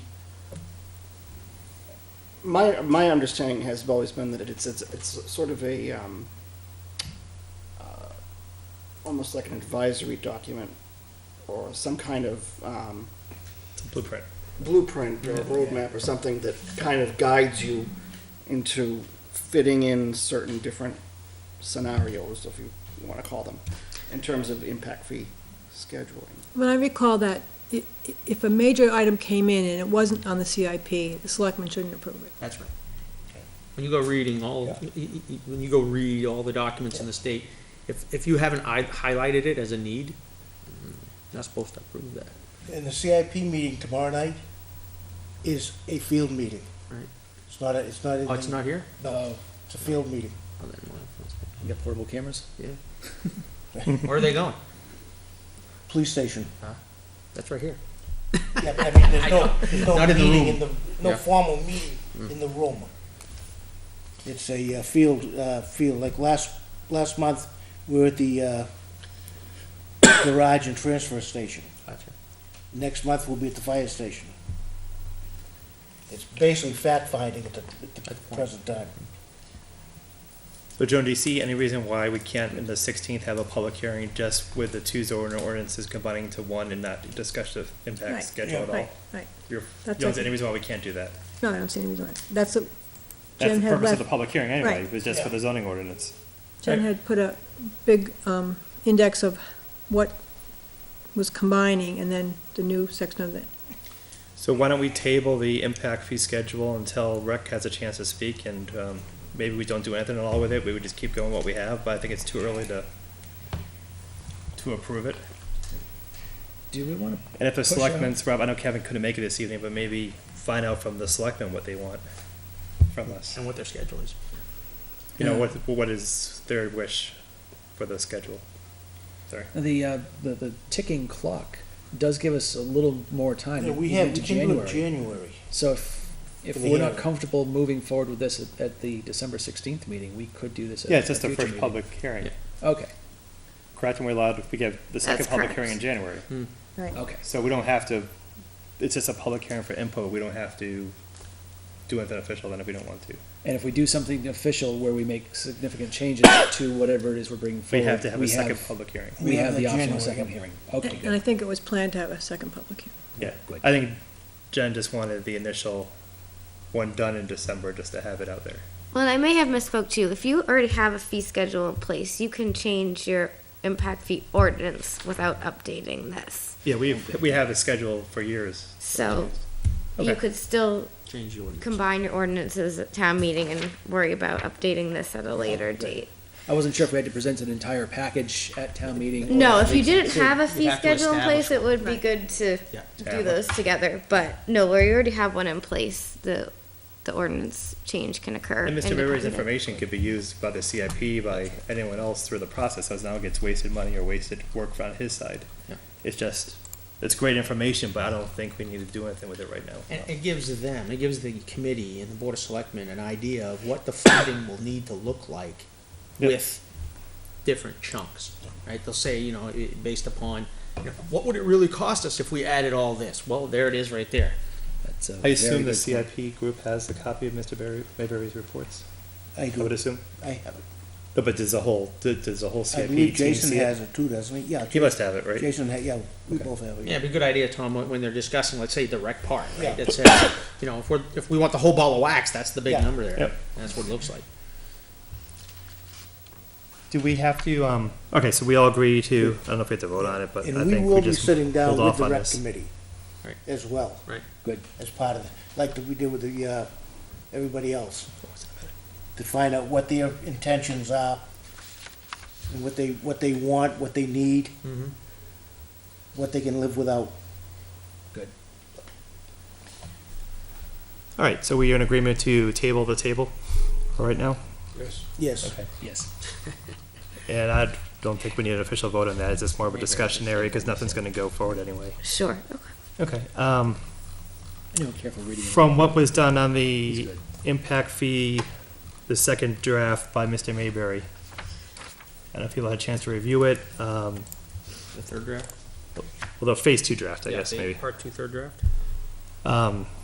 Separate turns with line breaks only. my my understanding has always been that it's it's it's sort of a um, uh, almost like an advisory document or some kind of um,
Blueprint.
blueprint or roadmap or something that kind of guides you into fitting in certain different scenarios, if you want to call them, in terms of impact fee scheduling.
When I recall that, i- i- if a major item came in and it wasn't on the CIP, the selectmen shouldn't approve it.
That's right.
When you go reading all, y- y- y- when you go read all the documents in the state, if, if you haven't i- highlighted it as a need, mm, not supposed to approve that.
And the CIP meeting tomorrow night is a field meeting.
Right.
It's not a, it's not.
Oh, it's
anything-
not here?
No, it's a field meeting.
Oh, then we'll have
You got portable cameras?
to- Where are they going?
Police station.
That's right here.
Yeah, but I mean, there's no, there's no
Not in the
meeting
room.
in the, no
Yeah. Mm.
formal meeting in the room. It's a uh, field, uh, field, like last, last month, we were at the, uh, garage and transfer station.
Gotcha.
Next month, we'll be at the fire station. It's basically fact finding at the, at the
Good point.
present time.
So Joan, do you see any reason why we can't in the sixteenth have a public hearing just with the two zoning ordinances combining to one and not discuss the
Right,
impact schedule at all?
Right, right.
You're, you
That's
don't see
okay.
any reason why we can't do that?
No, I don't see any reason why. That's, a-
That's
Jen
the
had
purpose of the
left-
public hearing anyway,
Right.
was just for the zoning ordinance.
Jen had put a big um, index of what was combining and then the new section of it.
So why don't we table the impact fee schedule until rec has a chance to speak and, um, maybe we don't do anything at all with it, we would just keep going what we have, but I think it's too early to, to approve it.
Do we want
And if the
Push it.
selectmen's, Rob, I know Kevin couldn't make it this evening, but maybe find out from the selectmen what they want from us.
And what their schedule is.
you know, what, what is their wish for the schedule?
to, the, uh, the, the ticking clock does give us a little more time.
Yeah, we
to
have,
move
we
to
can do it
January.
January.
So if, if
For the
we're not
hearing.
comfortable moving forward with this at, at the December sixteenth meeting, we could do this at
Yeah, it's just
a
the
future
first
meeting.
public hearing,
Yeah.
Okay,
correct? And we're allowed, we give the second
That's
public
correct. Hmm.
hearing in January.
Right.
okay.
So we don't have to, it's just a public hearing for input, we don't have to do anything official then if we don't want to.
And if we do something official where we make significant changes to whatever it is we're bringing
We
forward.
have to have a second public hearing.
We have the optional
January.
second hearing. Okay,
And I
good.
think it was planned to have a second public hearing.
Yeah,
Good.
I think Jen just wanted the initial one done in December, just to have it out there.
Well, and I may have misspoke too. If you already have a fee schedule in place, you can change your impact fee ordinance without updating this.
Yeah, we've, we have a schedule for years.
So
Okay.
you could still
Change the ordinance.
combine your ordinances at town meeting and worry about updating this at a later date.
I wasn't sure if we had to present an entire package at town meeting. or-
No, if you didn't have a
You'd
fee
have to
schedule in place,
establish
it would be
Right.
good to
Yeah.
do those together. But no, where you already have one in place, the, the ordinance change can occur.
And Mr. Rivers'
independent.
information could be used by the CIP, by anyone else through the process, as now it gets wasted money or wasted work on his side.
Yeah.
It's just, it's great information, but I don't think we need to do anything with it right now.
And it gives them, it gives the committee and the board of selectmen an idea of what the funding will need to look like
Yep.
with different chunks, right? They'll say, you know, i- based upon, you know, what would it really cost us if we added all this? Well, there it is right there.
That's a
I
very
assume the
good point.
CIP group has a copy of Mr. Barry, Mayberry's reports,
I
I
do,
would assume.
I have it.
No, But there's a whole, there- there's a whole
I
CIP team.
believe Jason
see it.
has it too, doesn't he? Yeah,
He must have it, right?
Jason, ha- yeah, we both have it.
Yeah, it'd be a good idea, Tom, when- when they're discussing, let's say, the rec part,
Yeah.
right? That says, you know, if we're, if we want the whole ball of wax, that's the big
Yeah.
number there.
Yep.
That's what it looks like.
Do we have to, um, okay, so we all agree to, I don't know if we have to vote on it, but I
And we
think we
will be
just
sitting down
hold
with
off
the
on
rec
this.
committee
Right.
as well.
Right.
Good.
As part of, the like we did with the, uh, everybody else. To find out what their intentions are, and what they, what they want, what they need,
Mm-hmm.
what they can live without.
All right, so we are in agreement to table the table for right now?
Yes,
Yes.
And I don't think we need an official vote on that, it's just more of a discussion area, because nothing's gonna go forward anyway.
Sure, okay.
Okay, um,
I know, careful reading.
from what was done on
He's
the
good.
impact fee, the second draft by Mr. Mayberry. I don't know if people had a chance to review it, um,
The third draft?
well, the phase two draft, I guess, maybe.
Part two, third draft?
Um,